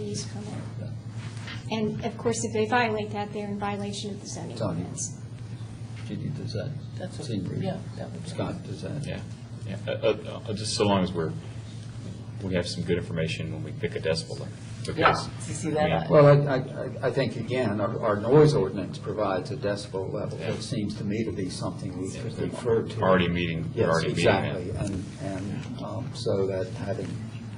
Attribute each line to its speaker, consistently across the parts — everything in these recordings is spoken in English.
Speaker 1: use permit. And of course, if they violate that, they're in violation of the zoning
Speaker 2: Zoning.
Speaker 1: ordinance.
Speaker 2: Judy, does that
Speaker 3: That's what-
Speaker 2: seem
Speaker 3: yeah,
Speaker 2: reasonable?
Speaker 3: that would be-
Speaker 2: Scott, does that?
Speaker 4: Yeah, yeah, Uh, uh, uh, just so long as we're, we have some good information when we pick a decibel. limit, because,
Speaker 3: Yeah, you see
Speaker 4: I
Speaker 3: that?
Speaker 4: mean,
Speaker 2: Well, I, I- I think, again, our our noise ordinance provides a decibel level.
Speaker 4: Yeah.
Speaker 2: It seems to me to be something we
Speaker 4: Yeah,
Speaker 2: could
Speaker 4: we're
Speaker 2: refer to.
Speaker 4: already meeting- we're already meeting that.
Speaker 2: Yes, exactly, and, and um, so that having,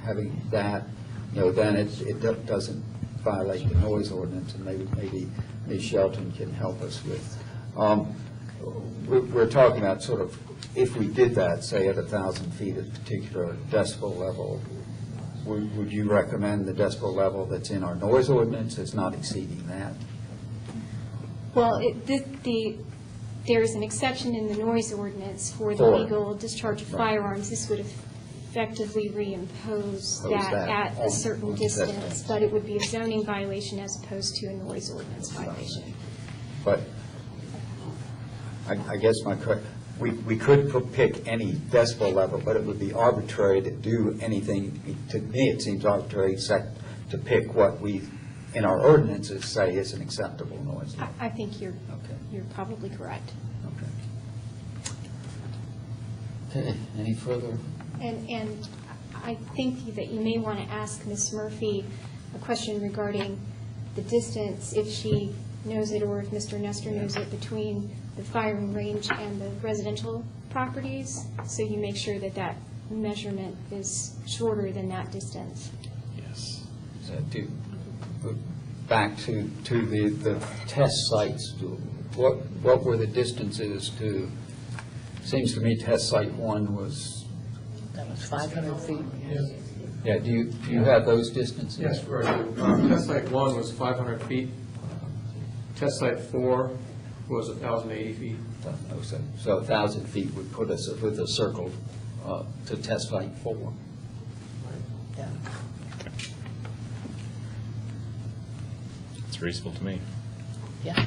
Speaker 2: having that, you know, then it, it do- doesn't violate the noise ordinance, and maybe, maybe Ms. Shelton can help us with. Um, We're, we're talking about sort of, if we did that, say at a thousand feet at a particular decibel level, would, would you recommend the decibel level that's in our noise ordinance is not exceeding that?
Speaker 1: Well, it, the- the, there is an exception in the noise ordinance for the
Speaker 2: For-
Speaker 1: legal discharge of
Speaker 2: Right.
Speaker 1: firearms. This would effectively reimpose
Speaker 2: Impose
Speaker 1: that
Speaker 2: that
Speaker 1: at
Speaker 2: on-
Speaker 1: a certain
Speaker 2: on
Speaker 1: distance,
Speaker 2: distance.
Speaker 1: but it would be a zoning violation as opposed to a noise ordinance violation.
Speaker 2: But I, I guess my, que- we, we could p- pick any decibel level, but it would be arbitrary to do anything, to me, it seems arbitrary except to pick what we, in our ordinances, say is an acceptable noise level.
Speaker 1: I, I think you're,
Speaker 2: Okay.
Speaker 1: you're probably correct.
Speaker 2: Okay, any further?
Speaker 1: And, and I think that you may want to ask Ms. Murphy a question regarding the distance, if she knows it or if Mr. Nestor knows it, between the firing range and the residential properties, so you make sure that that measurement is shorter than that distance.
Speaker 4: Yes.
Speaker 2: So Uh, do, uh, back to, to the, the test sites, do- what, what were the distances to, seems to me test site one was,
Speaker 3: That was 500 feet.
Speaker 5: Yes,
Speaker 2: yeah, do you, do you have those distances?
Speaker 5: yes, right. Uh, Test site one was 500 feet. Test site four was 1,080 feet.
Speaker 2: Don't know, Uh, So, so a thousand feet would put us with a circle uh, to test site four.
Speaker 3: Yeah.
Speaker 4: It's reasonable to me.
Speaker 3: Yeah.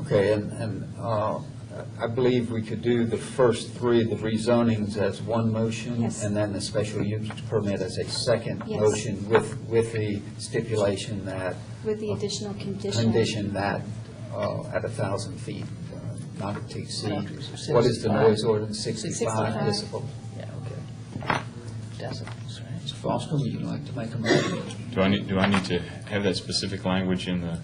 Speaker 2: Okay, and, and uh, I believe we could do the first three, the rezonings as one motion,
Speaker 1: Yes.
Speaker 2: and then the special use permit as a second
Speaker 1: Yes.
Speaker 2: motion with, with the stipulation that,
Speaker 1: With the additional condition.
Speaker 2: condition that uh, at a thousand feet, uh, not to exceed,
Speaker 3: Sixty-five.
Speaker 2: what is the noise ordinance,
Speaker 3: Sixty-five.
Speaker 2: sixty-five decibel?
Speaker 3: Yeah,
Speaker 2: okay.
Speaker 3: Decibels, right?
Speaker 2: Mr. Foster, would you like to make a motion?
Speaker 4: Do I need, do I need to have that specific language in the,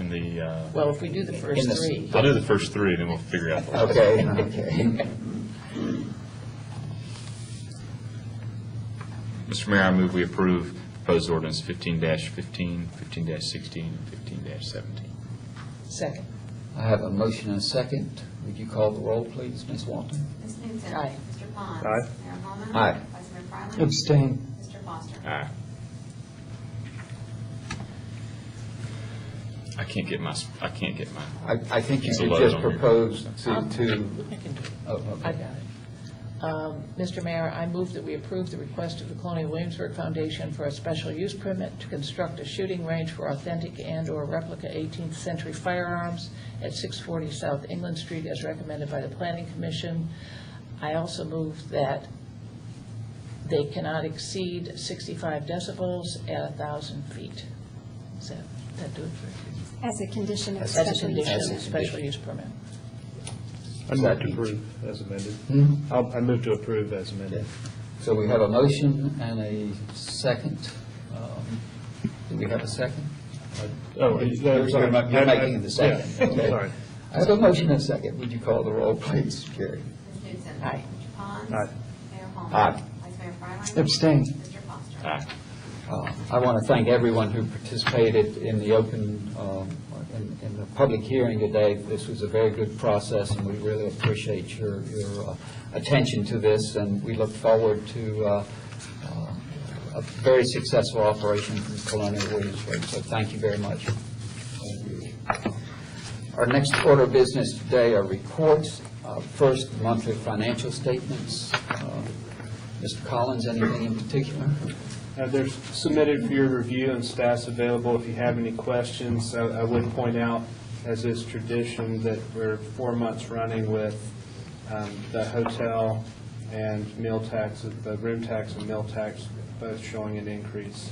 Speaker 4: in the, uh,
Speaker 3: Well, if we do the
Speaker 2: In
Speaker 3: first
Speaker 2: the-
Speaker 3: three,
Speaker 4: I'll do the first three, then we'll figure out the rest.
Speaker 2: Okay, okay.
Speaker 4: Mr. Mayor, I move we approve proposed ordinance fifteen fifteen, fifteen sixteen, and fifteen seventeen.
Speaker 3: second.
Speaker 2: I have a motion and a second. Would you call the roll, please, Ms. Walton?
Speaker 6: Ms. Newton.
Speaker 3: Aye.
Speaker 6: Mr. Pond.
Speaker 5: Aye.
Speaker 6: Mayor Holman.
Speaker 2: Aye.
Speaker 6: Vice Mayor Fryland.
Speaker 2: Abstain.
Speaker 6: Mr. Foster.
Speaker 4: Aye. I can't get my, sp- I can't get my,
Speaker 2: I, I think you
Speaker 4: It's a
Speaker 2: could
Speaker 4: load
Speaker 2: just
Speaker 4: on you.
Speaker 2: propose to, to,
Speaker 3: I can do it.
Speaker 2: oh,
Speaker 3: I
Speaker 2: okay.
Speaker 3: got it. Um, Mr. Mayor, I move that we approve the request of the Colonial Williamsburg Foundation for a special use permit to construct a shooting range for authentic and/or replica 18th-century firearms at 640 South England Street as recommended by the Planning Commission. I also move that they cannot exceed 65 decibels at 1,000 feet. Does that, that do it for
Speaker 1: As a condition of
Speaker 2: As a
Speaker 1: special
Speaker 3: you? As a
Speaker 1: use.
Speaker 3: condition,
Speaker 2: As a
Speaker 3: special
Speaker 2: condition.
Speaker 3: use permit.
Speaker 7: I move to approve as amended.
Speaker 2: Hmm?
Speaker 7: I'll- I move to approve as amended.
Speaker 2: So we have a motion and a second. Um, Do we have a second?
Speaker 7: Oh,
Speaker 2: You're-
Speaker 7: I'm
Speaker 2: you're-
Speaker 7: sorry.
Speaker 2: You're making the second.
Speaker 7: Yeah,
Speaker 2: okay.
Speaker 7: I'm sorry.
Speaker 2: I have a motion and a second. Would you call the roll, please, Jerry?
Speaker 6: Ms. Newton.
Speaker 3: Aye.
Speaker 6: Mr. Pond.
Speaker 7: Aye.
Speaker 6: Mayor Holman.
Speaker 2: Aye.
Speaker 6: Vice Mayor Fryland.
Speaker 7: Abstain.
Speaker 6: Mr. Foster.
Speaker 4: aye.
Speaker 2: Uh, I want to thank everyone who participated in the open, um, in in the public hearing today. This was a very good process, and we really appreciate your your uh, attention to this, and we look forward to uh, uh, a very successful operation from Colonial Williamsburg, so thank you very much. Our next order of business today are reports. Uh, First, monthly financial statements. Uh, Mr. Collins, anything in particular?
Speaker 7: Uh, They're submitted for your review and staff's available if you have any questions. I I would point out, as is tradition, that we're four months running with um, the hotel and meal tax, the room tax and meal tax both showing an increase.